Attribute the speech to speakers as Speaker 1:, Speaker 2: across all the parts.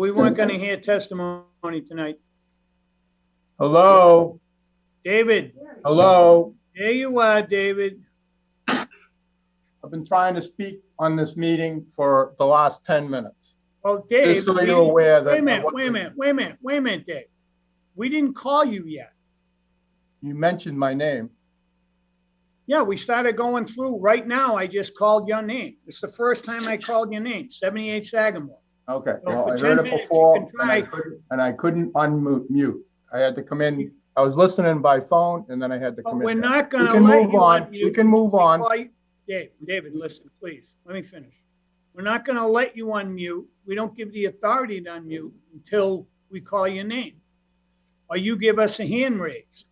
Speaker 1: We weren't going to hear testimony tonight.
Speaker 2: Hello,
Speaker 1: David,
Speaker 2: hello.
Speaker 1: there you are, David.
Speaker 2: I've been trying to speak on this meeting for the last 10 minutes.
Speaker 1: Oh,
Speaker 2: Just
Speaker 1: Dave.
Speaker 2: so
Speaker 1: we-
Speaker 2: you're aware that.
Speaker 1: Wait a minute, wait a minute, wait a minute, wait a minute, Dave. We didn't call you yet.
Speaker 2: You mentioned my name.
Speaker 1: Yeah, we started going through. Right now, I just called your name. It's the first time I called your name, 78 Sagamore.
Speaker 2: Okay,
Speaker 1: Well,
Speaker 2: well,
Speaker 1: for
Speaker 2: I
Speaker 1: 10
Speaker 2: heard it
Speaker 1: minutes, you
Speaker 2: before
Speaker 1: can
Speaker 2: and I
Speaker 1: try.
Speaker 2: couldn't- and I couldn't unmute. mute. I had to come in, I was listening by phone and then I had to
Speaker 1: But
Speaker 2: come in.
Speaker 1: we're not
Speaker 2: We
Speaker 1: gonna
Speaker 2: can
Speaker 1: let
Speaker 2: move
Speaker 1: you
Speaker 2: on, we
Speaker 1: unmute.
Speaker 2: can move on.
Speaker 1: before you- Dave, David, listen, please, let me finish. We're not gonna let you unmute. We don't give the authority to unmute until we call your name. Or you give us a hand raise.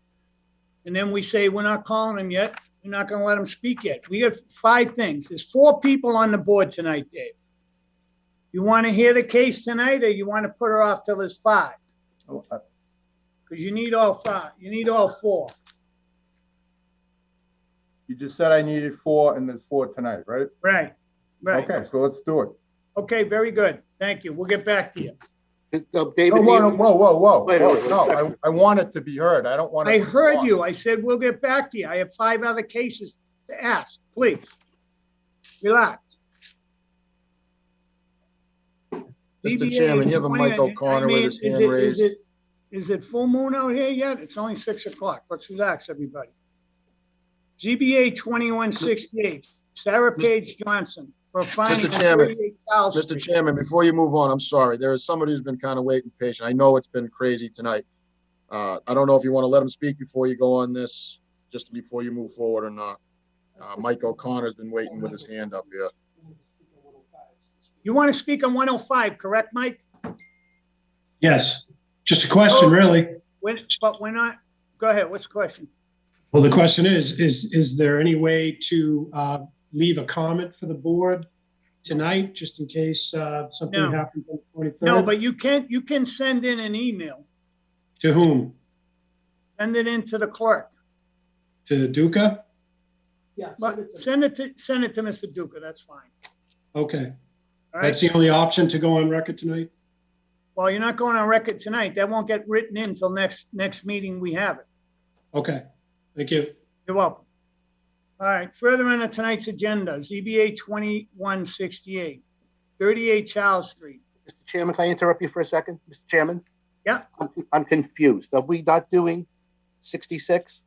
Speaker 1: And then we say, we're not calling him yet. We're not gonna let him speak yet. We got five things. There's four people on the board tonight, Dave. You wanna hear the case tonight or you wanna put her off till there's five? Cause you need all five, you need all four.
Speaker 2: You just said I needed four and there's four tonight, right?
Speaker 1: Right, right.
Speaker 2: Okay, so let's do it.
Speaker 1: Okay, very good. Thank you. We'll get back to you.
Speaker 3: Uh,
Speaker 2: Whoa,
Speaker 3: David,
Speaker 2: whoa, whoa,
Speaker 3: even-
Speaker 2: whoa, whoa,
Speaker 3: Wait, wait,
Speaker 2: whoa,
Speaker 3: wait.
Speaker 2: no, I, I want it to be heard. I don't want it.
Speaker 1: I
Speaker 2: to be
Speaker 1: heard
Speaker 2: lost.
Speaker 1: you. I said, we'll get back to you. I have five other cases to ask. Please. Relax.
Speaker 3: Mr.
Speaker 1: DBA
Speaker 3: Chairman, you have a
Speaker 1: is
Speaker 3: Mike
Speaker 1: playing-
Speaker 3: O'Connor with
Speaker 1: I mean,
Speaker 3: his
Speaker 1: is
Speaker 3: hand
Speaker 1: it- is
Speaker 3: raised.
Speaker 1: it- Is it full moon out here yet? It's only six o'clock. Let's relax, everybody. GBA twenty-one sixty-eight, Sarah Page Johnson for a finding.
Speaker 3: Mr. Chairman, Mr.
Speaker 1: Mr.
Speaker 3: Chairman, before you move on, I'm sorry. There is somebody who's been kind of waiting patient. I know it's been crazy tonight. Uh, I don't know if you want to let him speak before you go on this, just before you move forward or not. Uh, Mike O'Connor's been waiting with his hand up here.
Speaker 1: You want to speak on one oh five, correct, Mike?
Speaker 4: Yes, just a
Speaker 1: Oh.
Speaker 4: question, really.
Speaker 1: When, but we're not, go ahead. What's the question?
Speaker 4: Well, the question is, is, is there any way to uh, leave a comment for the board tonight, just in case uh,
Speaker 1: No.
Speaker 4: something happens on the 23rd?
Speaker 1: No, but you can, you can send in an email,
Speaker 4: To whom?
Speaker 1: send it in to the clerk,
Speaker 4: To Duca?
Speaker 1: but send it to, send it to Mr. Duca, that's fine.
Speaker 4: Okay,
Speaker 1: All
Speaker 4: that's
Speaker 1: right,
Speaker 4: the only option to go on record tonight?
Speaker 1: well, you're not going on record tonight, that won't get written in till next, next meeting we have it.
Speaker 4: Okay, thank you.
Speaker 1: You're welcome. All right, further on to tonight's agenda, ZBA 2168, 38 Charles Street.
Speaker 5: Mr. Chairman, can I interrupt you for a second, Mr. Chairman?
Speaker 1: Yeah.
Speaker 5: I'm- I'm confused. Are we not doing 66?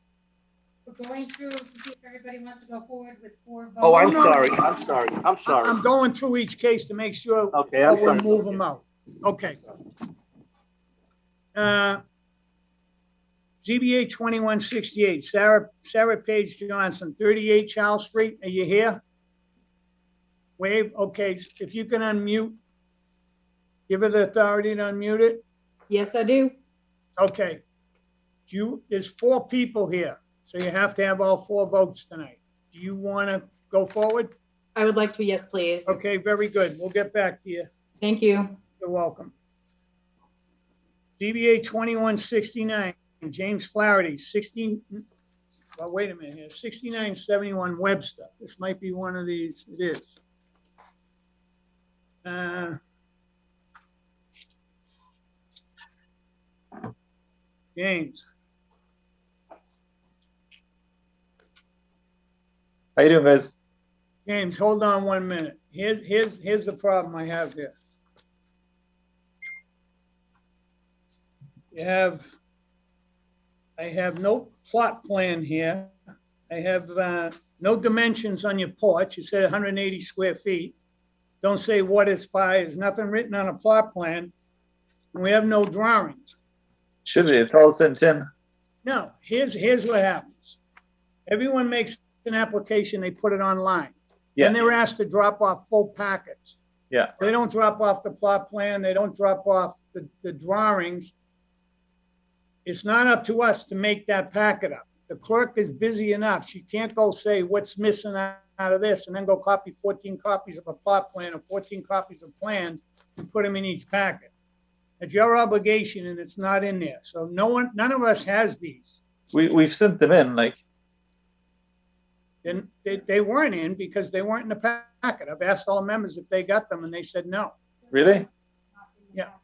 Speaker 6: We're going through to see if everybody wants to go forward with four votes.
Speaker 5: Oh, I'm
Speaker 1: no.
Speaker 5: sorry, I'm sorry, I'm sorry. Oh,
Speaker 1: I'm Oh, going through each case to make sure
Speaker 5: Okay,
Speaker 1: I
Speaker 5: I'm
Speaker 1: will
Speaker 5: sorry.
Speaker 1: move them out. Okay. Uh, ZBA 2168, Sarah, Sarah Page Johnson, 38 Charles Street. Are you here? Wave, okay, if you can unmute, give her the authority to unmute it.
Speaker 7: Yes, I do.
Speaker 1: Okay. Do you, there's four people here, so you have to have all four votes tonight. Do you want to go forward?
Speaker 7: I would like to, yes, please.
Speaker 1: Okay, very good. We'll get back to you.
Speaker 7: Thank you.
Speaker 1: You're welcome. DBA 2169, James Flaherty, 16, well, wait a minute here, 6971 Webster. This might be one of these, it is. Uh, James,
Speaker 8: How you doing, guys?
Speaker 1: James, hold on one minute. Here's, here's, here's the problem I have here. You have, I have no plot plan here. I have, uh, no dimensions on your porch. You said hundred and eighty square feet. Don't say what is by, there's nothing written on a plot plan. And we have no drawings.
Speaker 8: Should be. It's all sent in.
Speaker 1: No, here's, here's what happens. Everyone makes an application, they put it online.
Speaker 8: Yeah.
Speaker 1: And they were asked to drop off full packets.
Speaker 8: Yeah.
Speaker 1: They don't drop off the plot plan, they don't drop off the, the drawings. It's not up to us to make that packet up. The clerk is busy enough, she can't go say what's missing out out of this and then go copy fourteen copies of a plot plan or fourteen copies of plans and put them in each packet. It's your obligation and it's not in there. So no one, none of us has these.
Speaker 8: We we've sent them in. Like
Speaker 1: Then they, they weren't in because they weren't in the packet. I've asked all members if they got them and they said no.
Speaker 8: really?
Speaker 1: Yeah.